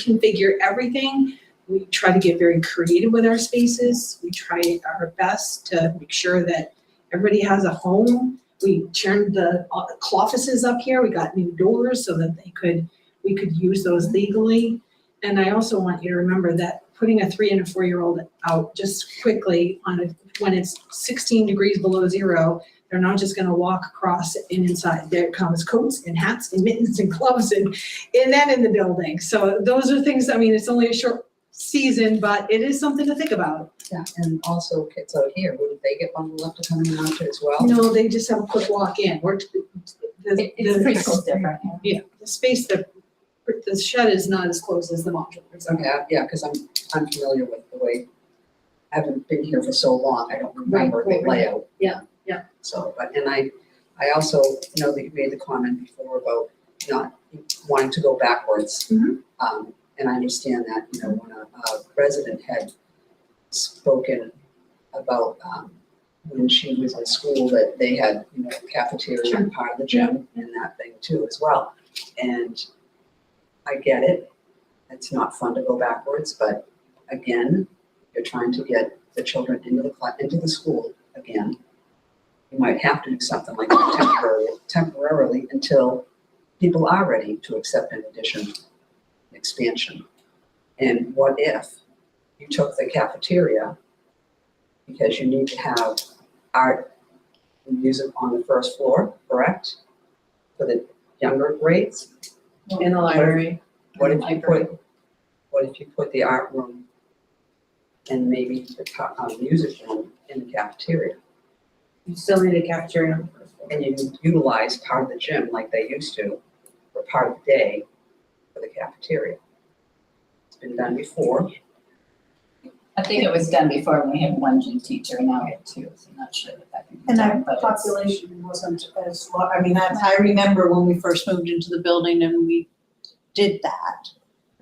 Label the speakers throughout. Speaker 1: reconfigure everything. We try to get very creative with our spaces. We try our best to make sure that everybody has a home. We turned the all the offices up here. We got new doors so that they could, we could use those legally. And I also want you to remember that putting a three and a four-year-old out just quickly on a, when it's sixteen degrees below zero, they're not just gonna walk across and inside. There comes coats and hats and mittens and gloves and and then in the building. So those are things, I mean, it's only a short season, but it is something to think about.
Speaker 2: Yeah, and also kids out here, wouldn't they get bundled up to come and watch it as well?
Speaker 1: No, they just have a quick walk in. We're, the,
Speaker 3: It- It's pretty cool,
Speaker 1: the,
Speaker 3: different.
Speaker 1: yeah, the space, the, the shed is not as close as the modular. is.
Speaker 2: Okay, I- yeah, because I'm, I'm familiar with the way, I haven't been here for so long, I don't remember the
Speaker 1: right, right.
Speaker 2: layout.
Speaker 1: Yeah, yeah.
Speaker 2: So, but, and I, I also know that you made the comment before about not wanting to go backwards.
Speaker 1: Mhm.
Speaker 2: Um, and I understand that, you know, when a, a resident had spoken about, um, when she was in school, that they had, you know, cafeteria and part of the gym and that thing too as well. And I get it, it's not fun to go backwards, but again, you're trying to get the children into the cla- into the school again. You might have to do something like that temporarily, temporarily until people are ready to accept an addition, an expansion. And what if you took the cafeteria because you need to have art and music on the first floor, correct? For the younger grades?
Speaker 3: In the library.
Speaker 2: What if you
Speaker 3: Library.
Speaker 2: put, what if you put the art room and maybe the co- uh, music room in the cafeteria?
Speaker 3: You still need a cafeteria on the first floor.
Speaker 2: And you utilize part of the gym like they used to, for part of the day for the cafeteria. It's been done before.
Speaker 4: I think it was done before when we had one gym teacher, now we have two, so I'm not sure that that can be
Speaker 5: And
Speaker 4: done,
Speaker 5: our
Speaker 4: but it's.
Speaker 5: population wasn't as, lar- I mean, that's, I remember when we first moved into the building and we did that.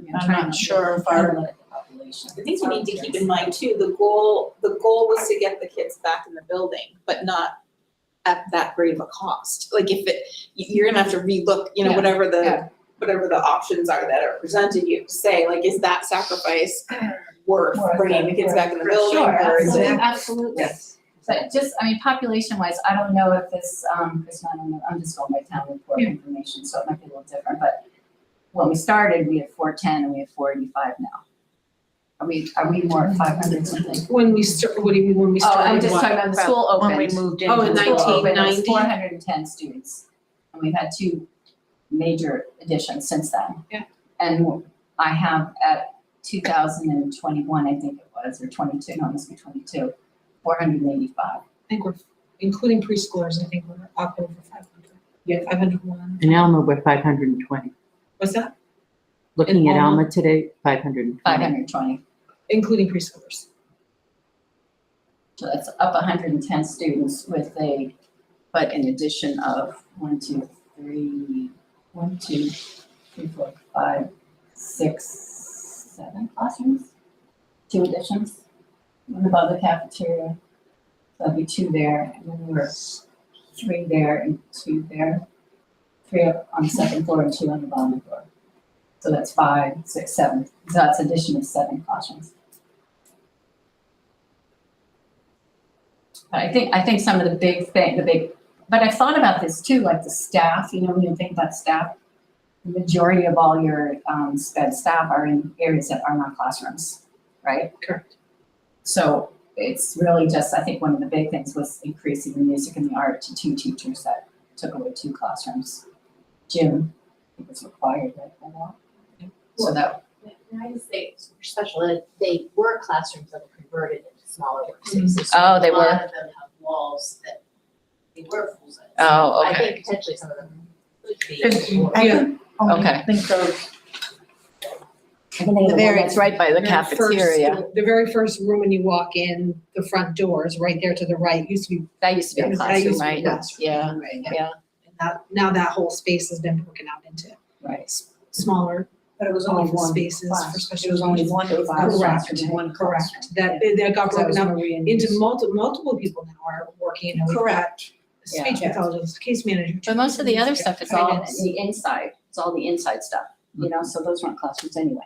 Speaker 4: I mean,
Speaker 5: I'm
Speaker 4: trying
Speaker 5: not
Speaker 4: to
Speaker 5: sure if
Speaker 4: trying
Speaker 5: our,
Speaker 4: to look at the population.
Speaker 6: The thing you need to keep in mind too, the goal, the goal was to get the kids back in the building, but not at that great of a cost. Like if it, you- you're gonna have to relook, you know,
Speaker 4: Yeah,
Speaker 6: whatever
Speaker 4: yeah.
Speaker 6: the, whatever the options are that are presented, you have to say, like, is that sacrifice worth
Speaker 4: Worth
Speaker 6: bringing
Speaker 4: it,
Speaker 6: the kids
Speaker 4: worth
Speaker 6: back in the
Speaker 4: For
Speaker 6: building?
Speaker 4: Sure,
Speaker 6: or is
Speaker 4: absolutely,
Speaker 6: it-
Speaker 4: absolutely.
Speaker 2: Yes.
Speaker 4: But just, I mean, population wise, I don't know if this, um, Chris, I don't know, I'm just going by town report information, so it might be a little different, but when we started, we had four ten and we have four eighty-five now. Are we, are we more at five hundred something?
Speaker 1: When we start, what do you mean when we
Speaker 4: Oh,
Speaker 1: started?
Speaker 4: I'm just
Speaker 1: what?
Speaker 4: talking about the school opened.
Speaker 3: When we moved in.
Speaker 1: Oh, in
Speaker 4: It's
Speaker 1: nineteen-
Speaker 4: still open, It's
Speaker 1: 1990?
Speaker 4: four hundred and ten students, and we've had two major additions since then.
Speaker 1: Yeah.
Speaker 4: And I have at two thousand and twenty-one, I think it was, or twenty-two, no, it must be twenty-two, four hundred and eighty-five.
Speaker 1: I think we're, including preschoolers, I think we're up over five hundred. Yeah, five hundred one.
Speaker 7: In Alma, we're five hundred and twenty.
Speaker 1: What's that?
Speaker 7: Looking
Speaker 1: In
Speaker 7: at
Speaker 1: Alma?
Speaker 7: Alma today, five hundred and
Speaker 4: Five
Speaker 7: twenty.
Speaker 4: hundred and twenty,
Speaker 1: Including preschoolers.
Speaker 4: so that's up hundred and ten students with a, but an addition of one, two, three, one, two, three, four, five, six, seven classrooms? Two additions, one above the cafeteria, so that'd be two there, and then we were three there and two there. Three up on the second floor and two on the bottom floor. So that's five, six, seven, so that's addition of seven classrooms. But I think, I think some of the big thing, the big, but I've thought about this too, like the staff, you know, when you think about staff, the majority of all your um sped staff are in areas that are not classrooms, right?
Speaker 1: Correct.
Speaker 4: So it's really just, I think one of the big things was increasing the music and the art to two teachers that took away two classrooms. Gym, I think was required, right, by law? So that,
Speaker 8: Can I just say, for special ed, they were classrooms that were converted into smaller
Speaker 4: Mm-hmm.
Speaker 8: workspaces. So
Speaker 3: Oh, they
Speaker 8: A
Speaker 3: were.
Speaker 8: lot of them have walls that they were full size.
Speaker 3: Oh,
Speaker 8: I
Speaker 3: okay.
Speaker 8: think potentially some of them could
Speaker 3: There's-
Speaker 8: be more.
Speaker 5: I
Speaker 1: Yeah.
Speaker 5: think, only
Speaker 3: Okay.
Speaker 5: think those,
Speaker 4: I think they
Speaker 3: The
Speaker 4: were
Speaker 3: very,
Speaker 4: all-
Speaker 3: it's right by the
Speaker 1: very first-
Speaker 3: cafeteria.
Speaker 1: The very first room when you walk in, the front door is right there to the right, used to be.
Speaker 3: That used to be a
Speaker 1: that used
Speaker 3: classroom,
Speaker 1: to be a
Speaker 3: right?
Speaker 1: classroom.
Speaker 3: Yeah.
Speaker 1: Right,
Speaker 3: yeah.
Speaker 1: And that, now that whole space has been broken out into
Speaker 4: Right,
Speaker 1: smaller
Speaker 5: but it was only one
Speaker 1: spaces for
Speaker 5: class.
Speaker 1: special.
Speaker 5: It was only one
Speaker 4: It was
Speaker 5: class.
Speaker 1: Correct.
Speaker 5: One
Speaker 1: Correct,
Speaker 5: classroom.
Speaker 1: that, that got
Speaker 4: because I
Speaker 1: broken
Speaker 4: was
Speaker 1: up
Speaker 4: Maria and
Speaker 1: into multi, multiple people now are working, you know, we've got
Speaker 5: Correct.
Speaker 1: speech
Speaker 4: Yeah.
Speaker 1: pathologist, case manager.
Speaker 3: But most of the other stuff is
Speaker 4: It's all
Speaker 1: finance.
Speaker 4: the inside, it's all the inside stuff. you know, so those weren't classrooms anyway.